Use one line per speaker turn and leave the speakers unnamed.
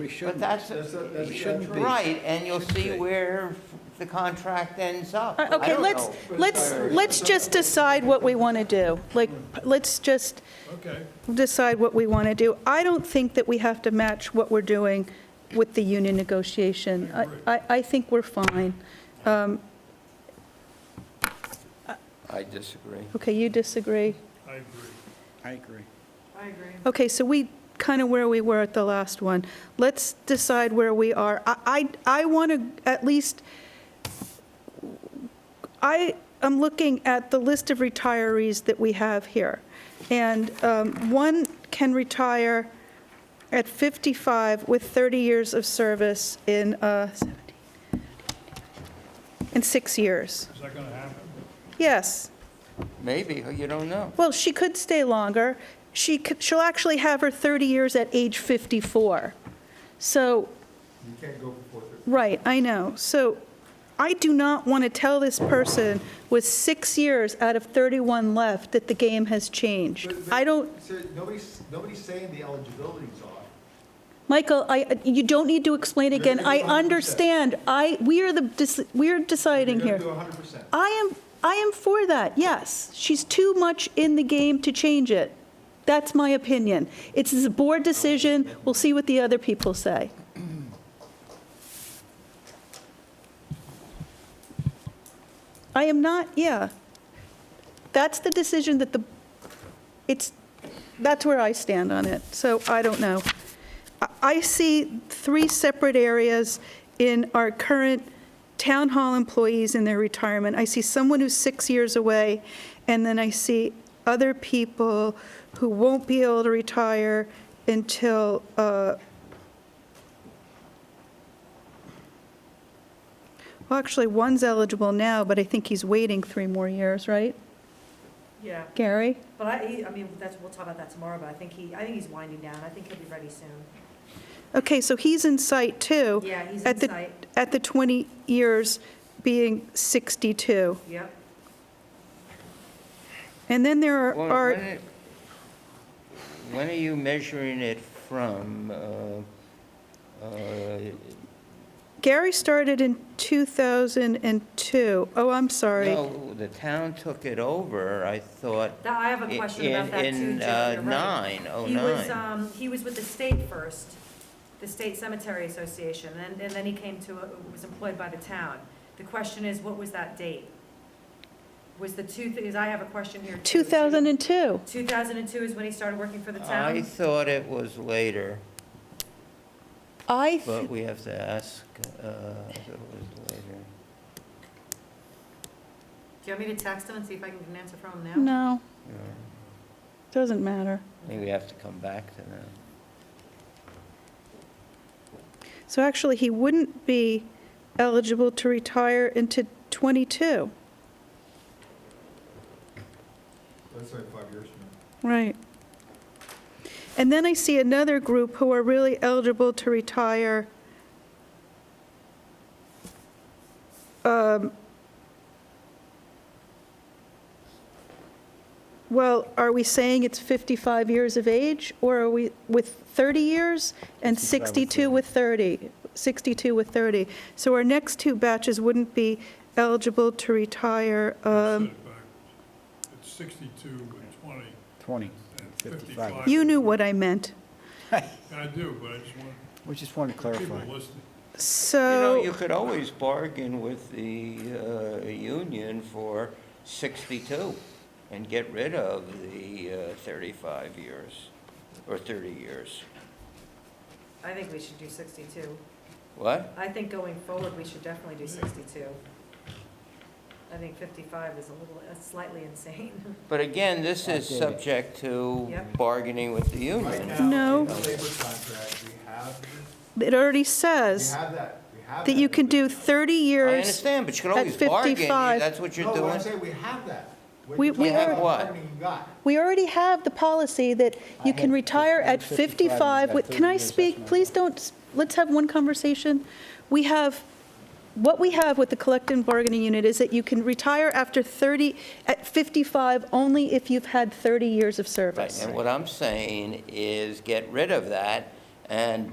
We shouldn't.
But that's,
That's not- that's
it
not
shouldn't
true.
right, and you'll see
be.
where the contract ends up.
Uh,
I
Okay,
don't
let's,
know.
let's, let's just decide what we want to do. Like, let's just
Okay.
decide what we want to do. I don't think that we have to match what we're doing with the union negotiation. I- I, I think we're fine. Um,
I disagree.
Okay, you disagree?
I agree.
I agree.
Okay, so we, kind of where we were at the last one. Let's decide where we are. I, I want to at least, I am looking at the list of retirees that we have here. And um, one can retire at 55 with 30 years of service in, uh, 17, in six years.
Is that going to happen?
Yes.
Maybe, you don't know.
Well, she could stay longer. She could, she'll actually have her 30 years at age 54. So,
You can't go before thirty.
right, I know. So I do not want to tell this person with six years out of 31 left that the game has changed.
But- but-
I don't,
So nobody's, nobody's saying the eligibility's off.
Michael, I, you don't need to explain
You're
again.
gonna
I
do 100%.
understand. I, we are the, dec- we're deciding
You're
here.
gonna do hundred percent.
I am, I am for that, yes. She's too much in the game to change it. That's my opinion. It's a board decision, we'll see what the other people say. I am not, yeah. That's the decision that the, it's, that's where I stand on it, so I don't know. I- I see three separate areas in our current town hall employees in their retirement. I see someone who's six years away, and then I see other people who won't be able to retire until, uh, well, actually, one's eligible now, but I think he's waiting three more years, right?
Yeah,
Gary?
but I, he- I mean, that's, we'll talk about that tomorrow, but I think he, I think he's winding down. I think he'll be ready soon.
Okay, so he's in sight, too.
Yeah, he's
at
in
the-
sight.
At the 20 years being 62.
Yep.
And then there are-
Well,
are.
when it- When are you measuring it from? uh, uh,
Gary started in 2002. Oh, I'm sorry.
No, the town took it over, I thought.
That, I have a
i-
question about
in-
that too, Jim.
In uh,
You're right.
nine, oh
He was,
nine.
um, he was with the state first, the State Cemetery Association, and, and then he came to, a- was employed by the town. The question is, what was that date? Was the two, because I have a question here too.
2002.
2002 is when he started working for the
I
town?
thought it was later,
I,
but
th-
we have to ask uh, if it was later.
Do you want me to text him and see if I can get an answer from him now?
no,
Yeah.
doesn't matter.
I think we have to come back to that.
So actually, he wouldn't be eligible to retire into 22.
That's like five years from now.
Right. And then I see another group who are really eligible to retire um, Well, are we saying it's 55 years of age, or are we with 30 years and 62 with 30? 62 with 30. So our next two batches wouldn't be eligible to retire. um,
Set it back. It's 62 with 20
20,
and 55.
55.
Um, You knew what I meant.
I do, but I just want
We just want to
people
clarify.
listening.
You know,
So.
you could always bargain with the uh, union for 62 and get rid of the uh, 35 years or 30 years.
I think we should do 62.
What?
I think going forward, we should definitely do 62. I think 55 is a little, that's slightly insane.
But again, this is
Okay.
subject to
Yep.
bargaining with the
Right
union.
now,
No.
in the labor contract, we have,
It already
we
says
have that, we have that. Oh,
that you can do
in
30
I
years.
understand, but you could
at
always bargain. You-
55
That's what
the-
you're
No, what Oh, I'm
doing.
saying, we have that. When
We-
you
we
talk about
have what?
how many You got.
We already have the policy that
I
you can
had
retire at
55,
55.
yeah,
Wait, Can
30
I
years, that's
speak?
my-
Please don't, s- let's have one conversation. We have, what we have with the collective bargaining unit is that you can retire after 30, at 55, only if you've had 30 years of
Right,
service.
and what I'm saying is get rid of that and